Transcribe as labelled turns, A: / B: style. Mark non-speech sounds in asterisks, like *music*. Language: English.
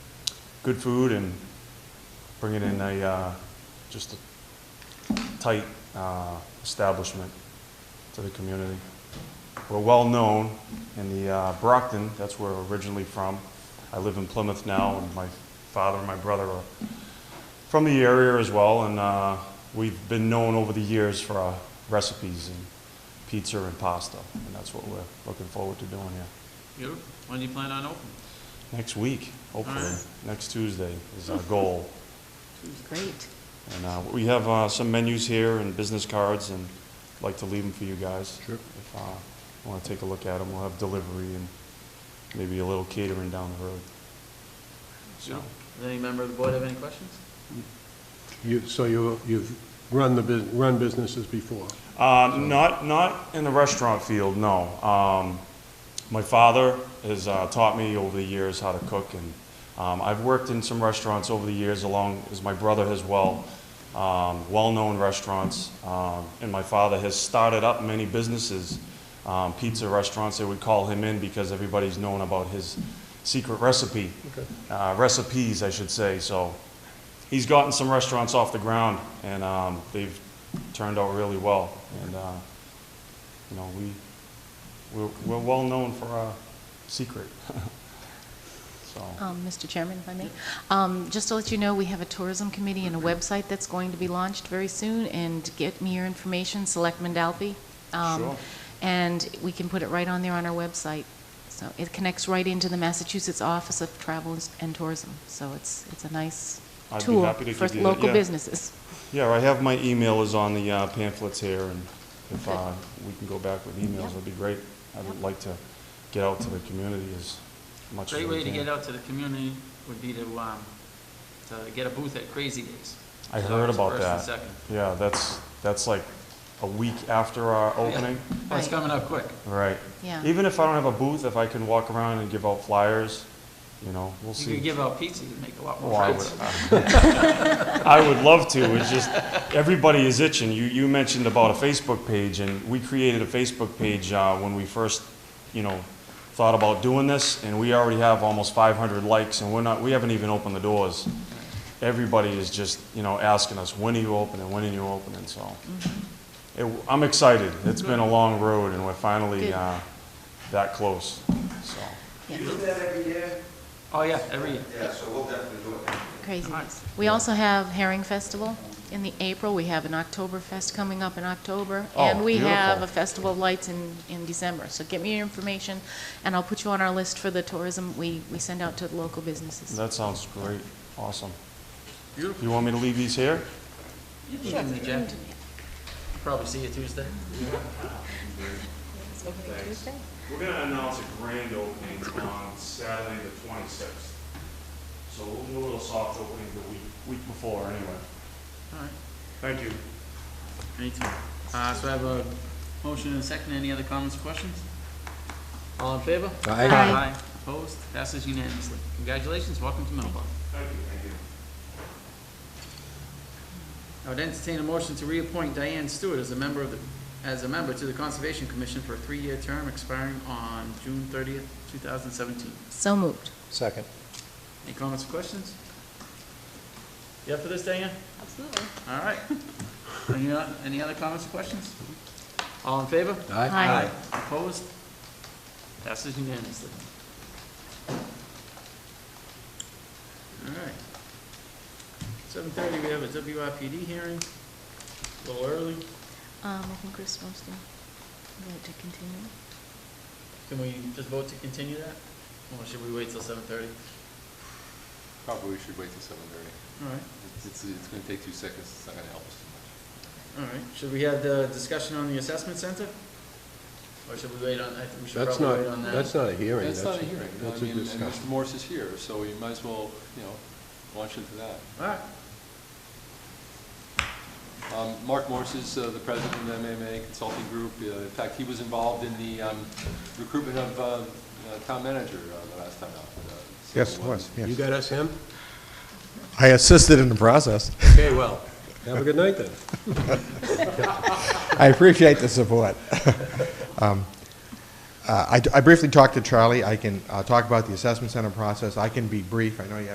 A: good food and bring it in a, uh, just a tight uh, establishment to the community. We're well-known in the uh, Brockton, that's where we're originally from. I live in Plymouth now, and my father and my brother are from the area as well, and uh, we've been known over the years for our recipes and pizza and pasta, and that's what we're looking forward to doing here.
B: Beautiful. When do you plan on opening?
A: Next week, hopefully,
B: Alright.
A: next Tuesday is our goal.
C: Great.
A: And uh, we have uh, some menus here and business cards, and I'd like to leave them for you guys.
D: Sure.
A: If uh, you want to take a look at them, we'll have delivery and maybe a little catering down the road. So,
B: Beautiful. Does any member of the board have any questions?
D: You, so you, you've run the, bus- run businesses before?
A: uh, Not, not in the restaurant field, no. Um, My father has uh, taught me over the years how to cook, and um, I've worked in some restaurants over the years, along as my brother as well, um, well-known restaurants. Um, and my father has started up many businesses, um, pizza restaurants. They would call him in because everybody's known about his secret recipe, uh, recipes, I should say. So he's gotten some restaurants off the ground, and um, they've turned out really well. And uh, you know, we we're, we're well known for our secret. *laughs* so,
C: Um, Mr. Chairman, if I may, um, just to let you know, we have a tourism committee and a website that's going to be launched very soon, and get me your information, Selectman Dalby. Um,
A: Sure.
C: And we can put it right on there on our website. So it connects right into the Massachusetts Office of Travel and Tourism, so it's, it's a nice
A: I'd be
C: tool
A: happy to
C: for
A: give you that,
C: local
A: yeah.
C: businesses.
A: yeah, I have my email is on the uh, pamphlets here, and if
C: Good.
A: uh, we can go back with emails,
C: Yep.
A: that'd be great. I would
C: Yep.
A: like to get out to the community as much as
B: Great
A: we
B: way to
A: can.
B: get out to the community would be to, um, to get a booth at Crazy Days.
A: I
B: So
A: heard
B: it's
A: about
B: first and
A: that.
B: second.
A: Yeah, that's that's like a week after our opening.
B: Oh, It's
C: Right.
B: coming up quick.
A: Right.
C: Yeah.
A: Even if I don't have a booth, if I can walk around and give out flyers, you know, we'll see.
B: You could give out pizza, you'd make a lot
A: Oh,
B: more
A: I would,
B: friends.
A: I would love to, it's just, everybody is itching. You, you mentioned about a Facebook page, and we created a Facebook page uh, when we first, you know, thought about doing this, and we already have almost 500 likes, and we're not, we haven't even opened the doors. Everybody is just, you know, asking us, when are you opening, when are you opening, so. It, I'm excited, it's been a long road, and we're finally
C: Good.
A: uh, that close, so.
C: Yeah.
E: You do that every year?
B: Oh, yeah, every year.
E: Yeah, so we'll definitely do it.
C: Craziness.
B: Nice.
C: We also have Herring Festival in the April, we have an Oktoberfest coming up in October,
A: Oh,
C: and we have
A: beautiful.
C: a Festival of Lights in, in December. So get me your information, and I'll put you on our list for the tourism we, we send out to the local businesses.
A: That sounds great, awesome.
B: Beautiful.
A: You want me to leave these here?
B: You can give me the jacket. Probably see you Tuesday.
A: We're gonna announce a grand opening on Saturday the twenty-sixth. So we'll do a little soft opening the week, week before anyway.
B: All right.
A: Thank you.
B: Anytime. Uh, so I have a motion and a second. Any other comments or questions? All in favor?
D: Aye.
C: Aye.
B: Opposed? Passes unanimously. Congratulations. Welcome to Middleborough.
A: Thank you, thank you.
B: I would entertain a motion to reappoint Diane Stewart as a member of the, as a member to the Conservation Commission for a three-year term expiring on June thirtieth, two thousand seventeen.
C: So moved.
F: Second.
B: Any comments or questions? You up for this, Diane?
C: Absolutely.
B: All right. *laughs* Any, o- any other comments or questions? All in favor?
C: Aye.
B: Opposed? Passes unanimously. All right. Seven thirty, we have a WIPD hearing, a little early.
C: Um, I think we're supposed to vote to continue.
B: Can we just vote to continue that? Or should we wait till seven thirty?
G: Probably should wait till seven thirty.
B: All right,
G: It's, it's gonna take two seconds, it's not gonna help us too much.
B: all right. Should we have the discussion on the assessment center? Or should we wait on, I think we should
D: That's
B: probably wait on
D: not,
B: that.
D: that's not a hearing.
G: That's not a hearing, I
D: That's a
G: mean, and Mr.
D: discussion.
G: Morse is here, so we might as well, you know, launch into that.
B: All right,
G: Um, Mark Morse is uh, the president of MMA Consulting Group. Uh, In fact, he was involved in the um, recruitment of uh, uh, town manager uh, the last time out. uh, so,
F: Yes,
G: uh,
F: was,
D: You
F: yes.
D: got us him?
F: I assisted in the process.
D: Okay, well, have a good night then.
F: I appreciate the support. *laughs* Um, uh, I I briefly talked to Charlie. I can uh, talk about the assessment center process. I can be brief. I know you have